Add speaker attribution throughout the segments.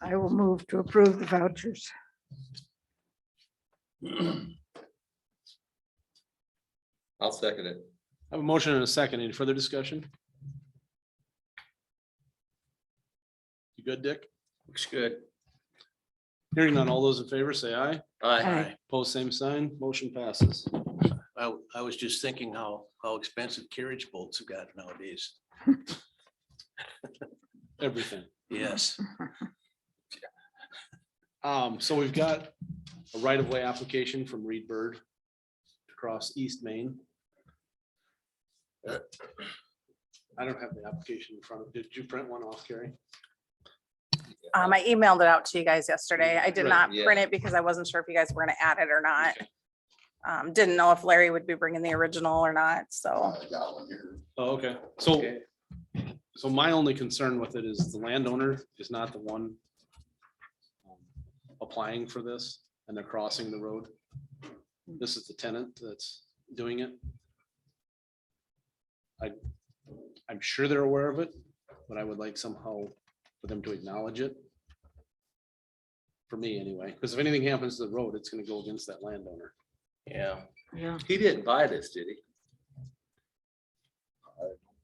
Speaker 1: I will move to approve the vouchers.
Speaker 2: I'll second it.
Speaker 3: I have a motion and a second. Any further discussion? You good, Dick?
Speaker 2: Looks good.
Speaker 3: Hearing none, all those in favor say aye.
Speaker 2: Aye.
Speaker 1: Aye.
Speaker 3: Post same sign, motion passes.
Speaker 4: I, w- I was just thinking how, how expensive carriage bolts have got nowadays.
Speaker 3: Everything.
Speaker 4: Yes,
Speaker 3: Um, so we've got a right-of-way application from Reed Bird across East Main. I don't have the application in front of, did you print one off, Carrie?
Speaker 5: Um, I emailed it out to you guys yesterday. I did
Speaker 3: Right,
Speaker 5: not
Speaker 2: yeah.
Speaker 5: print it because I wasn't sure if you guys were gonna add it or not.
Speaker 3: Okay.
Speaker 5: Um, didn't know if Larry would be bringing the original or not, so.
Speaker 3: Oh, okay. So,
Speaker 2: Okay.
Speaker 3: so my only concern with it is the landowner is not the one um, applying for this and they're crossing the road. This is the tenant that's doing it. I, I'm sure they're aware of it, but I would like somehow for them to acknowledge it. For me anyway, because if anything happens to the road, it's gonna go against that landowner.
Speaker 2: Yeah,
Speaker 1: Yeah.
Speaker 2: he didn't buy this, did he?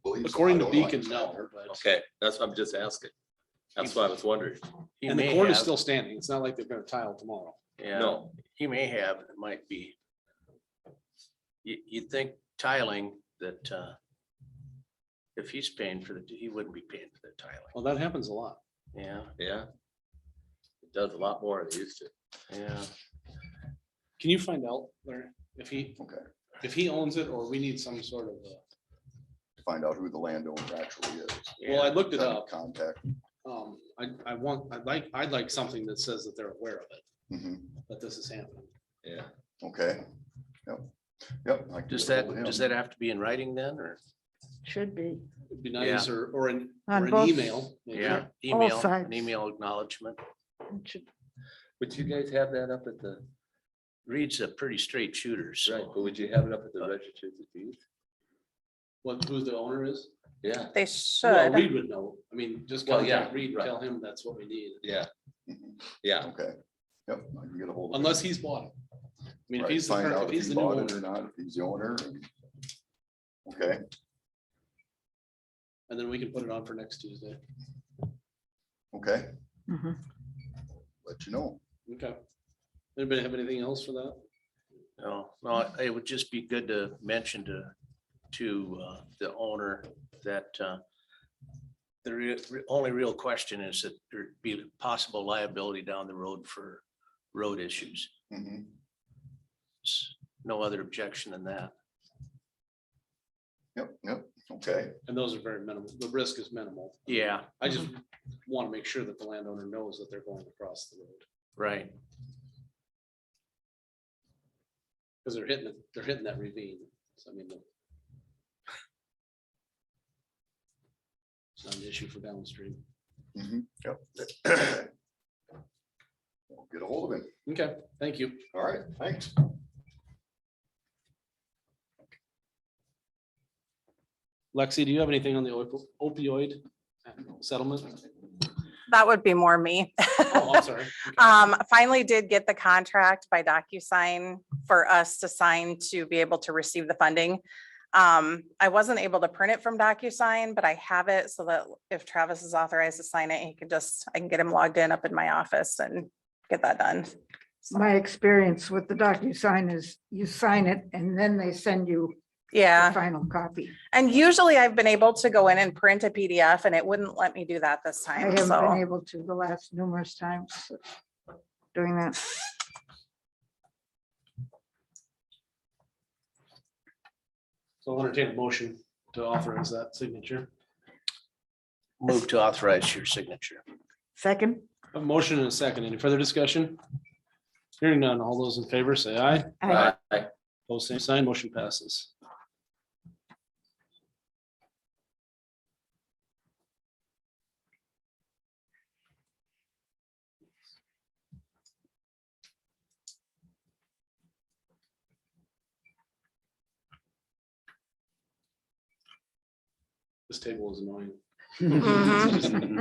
Speaker 6: Believe so.
Speaker 3: According
Speaker 6: I
Speaker 3: to
Speaker 6: don't know.
Speaker 3: Beacon, no, but.
Speaker 2: Okay, that's what I'm just asking. That's why I was wondering.
Speaker 4: he
Speaker 3: And the
Speaker 4: may
Speaker 3: court is
Speaker 4: have,
Speaker 3: still standing. It's not like they're gonna tile tomorrow.
Speaker 4: yeah,
Speaker 2: No,
Speaker 4: he may have, it might be. You, you'd think tiling that, uh, if he's paying for the, he wouldn't be paying for the tiling,
Speaker 3: Well, that happens a lot.
Speaker 4: yeah,
Speaker 2: yeah. It does a lot more than it used to.
Speaker 4: yeah.
Speaker 3: Can you find out, Larry, if he,
Speaker 6: Okay.
Speaker 3: if he owns it or we need some sort of, uh,
Speaker 6: To Find out who the landowner actually is.
Speaker 3: well, I looked it
Speaker 6: Kind of
Speaker 3: up.
Speaker 6: Contact.
Speaker 3: Um, I, I want, I'd like, I'd like something that says that they're aware of it,
Speaker 6: Mhm.
Speaker 3: that this is happening.
Speaker 2: Yeah,
Speaker 6: Okay. Yep. Yep. I can
Speaker 4: Does
Speaker 6: get
Speaker 4: that,
Speaker 6: ahold of
Speaker 4: does
Speaker 6: him.
Speaker 4: that have to be in writing then, or?
Speaker 1: Should be.
Speaker 3: It'd be nice, or, or an,
Speaker 1: On
Speaker 3: or an
Speaker 1: both-
Speaker 3: email. maybe.
Speaker 4: Yeah,
Speaker 1: All
Speaker 4: email,
Speaker 1: sides.
Speaker 4: an email acknowledgement.
Speaker 1: It should-
Speaker 2: would you guys have that up at the,
Speaker 4: Reed's a pretty straight shooter,
Speaker 2: right,
Speaker 4: so.
Speaker 2: but would you have it up at the register of deeds?
Speaker 3: What, who the owner is?
Speaker 2: Yeah,
Speaker 5: They
Speaker 3: Well,
Speaker 5: should.
Speaker 3: Reed would know. I mean, just
Speaker 2: Well, yeah,
Speaker 3: contact Reed, and
Speaker 2: right.
Speaker 3: tell him that's what we need,
Speaker 2: yeah,
Speaker 6: Mhm.
Speaker 2: yeah,
Speaker 6: Okay. Yep. I can get a hold. of him.
Speaker 3: unless he's bought it. I mean, if
Speaker 6: Right,
Speaker 3: he's, the
Speaker 6: find
Speaker 3: current-
Speaker 6: out
Speaker 3: if he's
Speaker 6: he
Speaker 3: the new
Speaker 6: bought it
Speaker 3: owner,
Speaker 6: Or not, if he's the owner. and- Okay,
Speaker 3: and then we can put it on for next Tuesday.
Speaker 6: okay,
Speaker 1: Mhm.
Speaker 6: let you know.
Speaker 3: Okay. Anybody have anything else for that?
Speaker 4: No, no, it would just be good to mention to, to uh, the owner that uh, the re- re- only real question is that there'd be possible liability down the road for road issues.
Speaker 6: Mhm.
Speaker 4: It's No other objection than that.
Speaker 6: Yep, yep, okay,
Speaker 3: And those are very minimal. The risk is minimal.
Speaker 4: Yeah,
Speaker 3: I just want to make sure that the landowner knows that they're going across the road,
Speaker 4: right.
Speaker 3: because they're hitting, it- they're hitting that ravine, so I mean. the- It's not an issue for downstream.
Speaker 6: Mhm. yep. I'll Get a hold of him.
Speaker 3: Okay, thank you.
Speaker 6: All right, thanks.
Speaker 3: Lexi, do you have anything on the opo- opioid settlement?
Speaker 5: That would be more me.
Speaker 3: Oh, I'm sorry.
Speaker 5: Um, finally did get the contract by DocuSign for us to sign to be able to receive the funding. Um, I wasn't able to print it from DocuSign, but I have it so that if Travis is authorized to sign it, he can just, I can get him logged in up in my office and get that done.
Speaker 1: My experience with the DocuSign is you sign it and then they send you the
Speaker 5: Yeah,
Speaker 1: final copy.
Speaker 5: and usually I've been able to go in and print a PDF and it wouldn't let me do that this
Speaker 1: I
Speaker 5: time,
Speaker 1: haven't been
Speaker 5: so.
Speaker 1: able to the last numerous times doing that.
Speaker 3: So I'll entertain a motion to authorize that signature.
Speaker 4: Move to authorize your signature.
Speaker 1: Second,
Speaker 3: I have A motion and a second. Any further discussion? Hearing none. All those in favor say aye.
Speaker 1: I
Speaker 3: Post same sign, motion passes. This table is annoying.
Speaker 5: Mhm.